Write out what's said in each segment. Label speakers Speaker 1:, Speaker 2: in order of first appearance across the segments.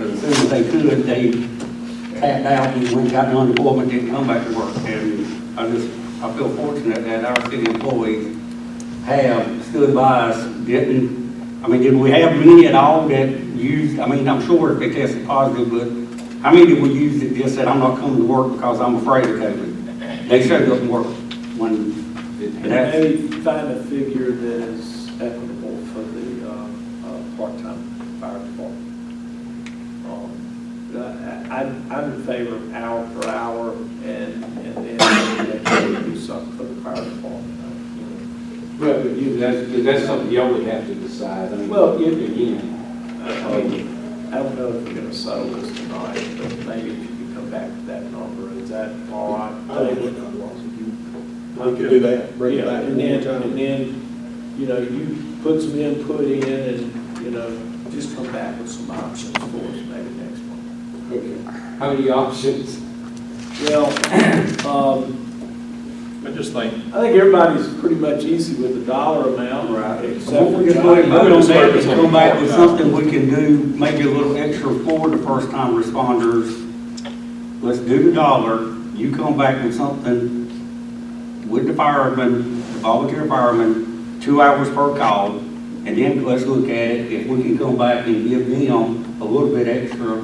Speaker 1: as soon as they could, they tapped out and went out on unemployment, didn't come back to work. And I just, I feel fortunate that our city employees have stood by us, didn't, I mean, did we have many at all that used, I mean, I'm sure if they tested positive, but how many did we use that just said, I'm not coming to work because I'm afraid of COVID? They showed up and worked when,
Speaker 2: And
Speaker 1: And that's-
Speaker 2: maybe find a figure that is equitable for the uh, uh, part-time fire department. Um, but I- I'm, I'm in favor of hour per hour and, and then maybe do something for the fire department. uh, you know.
Speaker 3: Well, but you, that's, but that's something y'all would have to decide, I mean.
Speaker 2: Well, you-
Speaker 3: Again,
Speaker 2: I mean, I don't know if we're gonna settle this tonight, but maybe if you could come back to that number, is that all right?
Speaker 4: I don't think I'm lost. We could do that, bring
Speaker 2: Yeah,
Speaker 4: it back.
Speaker 2: and then, and then, you know, you put some input in and, you know, just come back with some options for us maybe next month.
Speaker 4: Okay.
Speaker 3: how many options?
Speaker 2: Well, um,
Speaker 5: I just think,
Speaker 2: I think everybody's pretty much easy with the dollar amount.
Speaker 1: Right.
Speaker 2: Except
Speaker 1: What
Speaker 2: for
Speaker 1: we just want to
Speaker 2: Johnny.
Speaker 1: vote on that is go back with something we can do, maybe a little extra for the first time responders. Let's do the dollar, you come back with something with the firemen, the volunteer firemen, two hours per call, and then let's look at it, if we can come back and give them a little bit extra.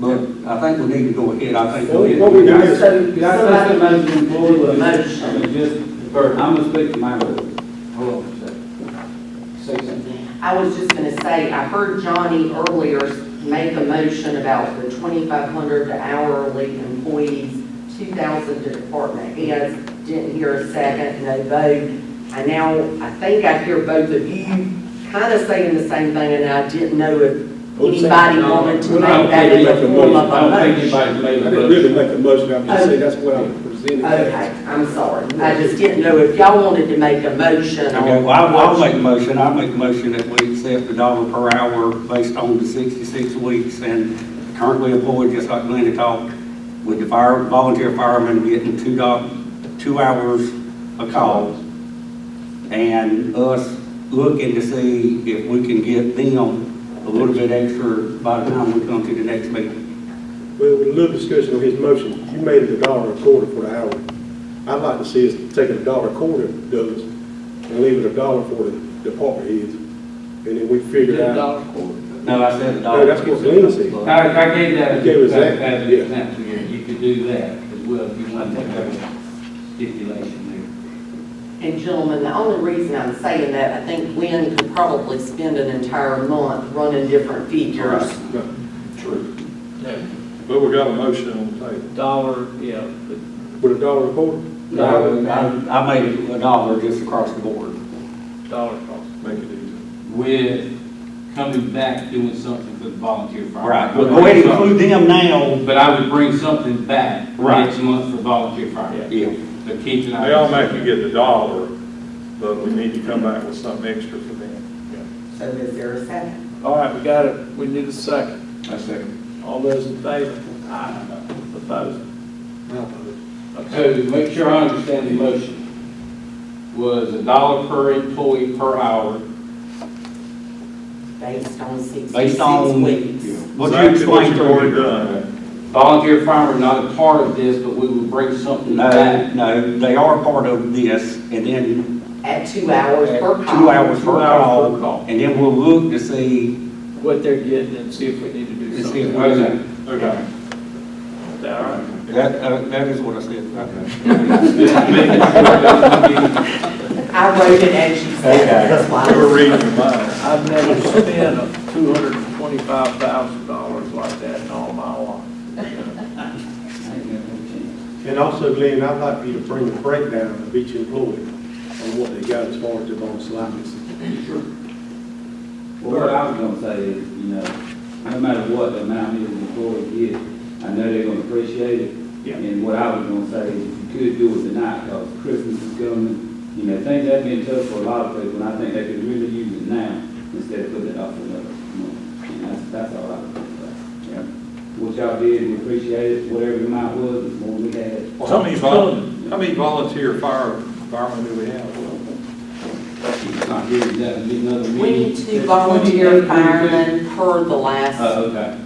Speaker 1: But I think we need to go ahead, I think. we need to-
Speaker 3: What we do is-
Speaker 6: So-
Speaker 3: Can I pass the motion
Speaker 6: Do a
Speaker 3: forward?
Speaker 6: motion.
Speaker 3: Just, Bert, I'm gonna speak to my board. Hold on a second. Say something.
Speaker 6: I was just gonna say, I heard Johnny earlier make a motion about the twenty-five hundred to hourly employees, two thousand to department heads, didn't hear a second, no vote. I now, I think I hear both of you kind of saying the same thing, and I didn't know if anybody wanted to
Speaker 3: Well,
Speaker 6: make
Speaker 3: I don't
Speaker 6: that
Speaker 3: think
Speaker 6: in the
Speaker 3: anybody-
Speaker 6: form of
Speaker 3: I
Speaker 6: a
Speaker 3: don't think
Speaker 6: motion.
Speaker 3: anybody's
Speaker 4: I
Speaker 3: made a
Speaker 4: didn't
Speaker 3: motion.
Speaker 4: really make a motion, I'm just saying, that's what I'm presenting.
Speaker 6: Okay, I'm sorry, I just didn't know if y'all wanted to make a motion
Speaker 1: Okay,
Speaker 6: or.
Speaker 1: well, I'll, I'll make a motion, I'll make a motion that we accept the dollar per hour based on the sixty-six weeks and currently employed, just like Glenn had talked, with the fire, volunteer firemen getting two doc, two hours a call. And us looking to see if we can get them a little bit extra by the time we come to the next meeting.
Speaker 4: Well, with a little discussion on his motion, you made it a dollar a quarter for the hour. I'd like to see us taking a dollar a quarter, Douglas, and leave it a dollar for the department heads, and then we figure
Speaker 2: Yeah,
Speaker 4: out.
Speaker 2: dollar quarter.
Speaker 1: No, I said the dollar.
Speaker 4: No, that's what Glenn said.
Speaker 3: I, I gave that,
Speaker 4: You gave us that,
Speaker 3: as an
Speaker 4: yeah.
Speaker 3: example here, you could do that as well, if you want to have a stipulation there.
Speaker 6: And gentlemen, the only reason I'm saying that, I think Glenn could probably spend an entire month running different figures.
Speaker 4: True.
Speaker 5: but we got a motion on the table.
Speaker 2: Dollar, yeah, but
Speaker 4: With a dollar a quarter?
Speaker 1: No, I, I made it a dollar just across the board.
Speaker 2: dollar cost.
Speaker 5: Make it easy.
Speaker 3: with coming back, doing something for the volunteer fire.
Speaker 1: Right, but go ahead and include them now.
Speaker 3: But I would bring something back
Speaker 1: Right.
Speaker 3: next month for volunteer fire,
Speaker 1: Yeah.
Speaker 3: but keep an eye.
Speaker 5: They all make you get the dollar, but we need to come back with something extra for them.
Speaker 6: So is there a second?
Speaker 2: All right, we got it, we need a second.
Speaker 5: I second.
Speaker 2: All those in favor? Aye. Opposed? Okay.
Speaker 3: So to make sure I understand the motion, was a dollar per employee per hour.
Speaker 6: Based on
Speaker 1: Based
Speaker 6: 66
Speaker 1: on-
Speaker 6: weeks.
Speaker 1: What you explained
Speaker 5: Exactly what
Speaker 1: to
Speaker 5: you've already
Speaker 1: me.
Speaker 5: done.
Speaker 3: Volunteer fire were not a part of this, but we would bring something
Speaker 1: No,
Speaker 3: back.
Speaker 1: no, they are part of this, and then
Speaker 6: At two hours per call.
Speaker 1: two hours per
Speaker 3: Two hours per
Speaker 1: call.
Speaker 3: call.
Speaker 1: And then we'll look to see,
Speaker 2: What they're getting and see if we need to
Speaker 1: to
Speaker 2: do
Speaker 1: see if
Speaker 2: something.
Speaker 1: we
Speaker 3: Okay.
Speaker 1: can.
Speaker 5: Okay.
Speaker 2: All right.
Speaker 1: That, uh, that is what I said.
Speaker 3: Just making sure that we-
Speaker 6: I wrote it as you said, that's why.
Speaker 5: You were reading your mind.
Speaker 2: I've never spent a two hundred and twenty-five thousand dollars like that in all my life.
Speaker 4: And also, Glenn, I'd like you to bring a breakdown of each employee on what they got as far as their bonus license.
Speaker 7: Well, what I was gonna say is, you know, no matter what the amount is the employee gets, I know they're gonna appreciate it.
Speaker 2: Yeah.
Speaker 7: And what I was gonna say is, if you could do it tonight, cause Christmas is coming, you know, things have been tough for a lot of people, and I think they could really use it now instead of putting it off another month. And that's, that's all I was gonna say. Yeah. What y'all did, we appreciate it, whatever the amount was, the more we had.
Speaker 5: How many vol, how many volunteer fire, firemen do we have?
Speaker 7: It's not not really, that would be another meeting.
Speaker 6: We need two volunteer firemen per the last
Speaker 7: Oh, okay.